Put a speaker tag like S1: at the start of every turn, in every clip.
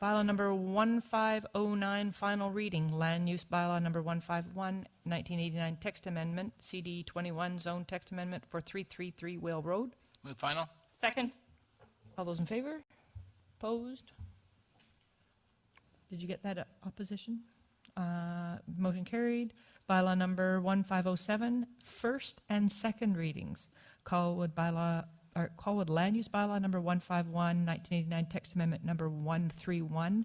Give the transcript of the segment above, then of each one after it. S1: Bylaw number 1509, final reading, land use bylaw number 151, 1989 text amendment, CD 21 zone text amendment for 333 Whale Road.
S2: Move final?
S3: Second.
S1: All those in favor? Opposed? Did you get that uh, opposition? Uh, Motion carried. Bylaw number 1507, first and second readings. Colwood bylaw, or Colwood Land Use Bylaw number 151, 1989, text amendment number 131,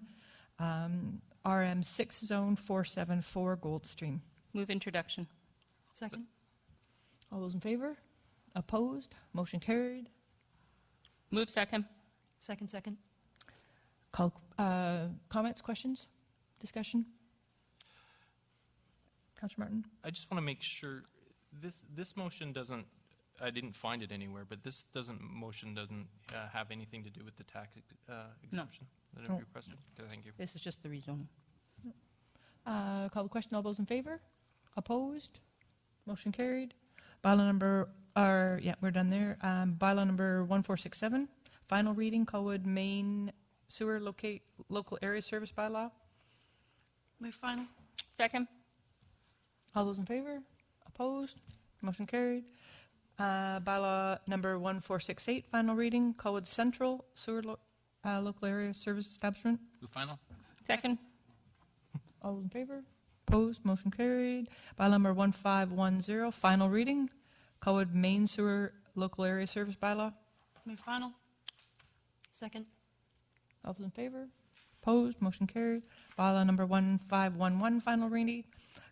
S1: um, RM6 Zone 474 Goldstream.
S3: Move introduction.
S4: Second.
S1: All those in favor? Opposed? Motion carried.
S3: Move second.
S4: Second, second.
S1: Call, uh, comments, questions, discussion? Counselor Martin?
S2: I just want to make sure, this, this motion doesn't, I didn't find it anywhere, but this doesn't, motion doesn't uh, have anything to do with the tax ex- uh,
S3: No.
S2: exemption that
S1: No.
S2: I requested? Okay, Thank you.
S3: This is just the rezoning.
S1: Uh, call the question, all those in favor? Opposed? Motion carried. Bylaw number, or, yeah, we're done there. Um, bylaw number 1467, final reading, Colwood Main Sewer Locate, Local Area Service Bylaw.
S4: Move final.
S3: Second.
S1: All those in favor? Opposed? Motion carried. Uh, Bylaw number 1468, final reading, Colwood Central Sewer Lo- uh, Local Area Service Establishment.
S2: Move final?
S3: Second.
S1: All in favor? Opposed? Motion carried. Bylaw number 1510, final reading, Colwood Main Sewer Local Area Service Bylaw.
S4: Move final. Second.
S1: All those in favor? Opposed? Motion carried. Bylaw number 1511, final reading,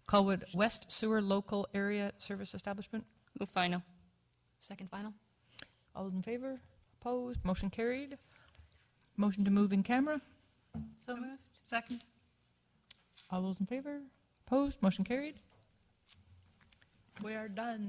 S1: Colwood West Sewer Local Area Service Establishment.
S3: Move final.
S4: Second final.
S1: All those in favor? Opposed? Motion carried. Motion to move in camera.
S4: So moved. Second.
S1: All those in favor? Opposed? Motion carried. We are done.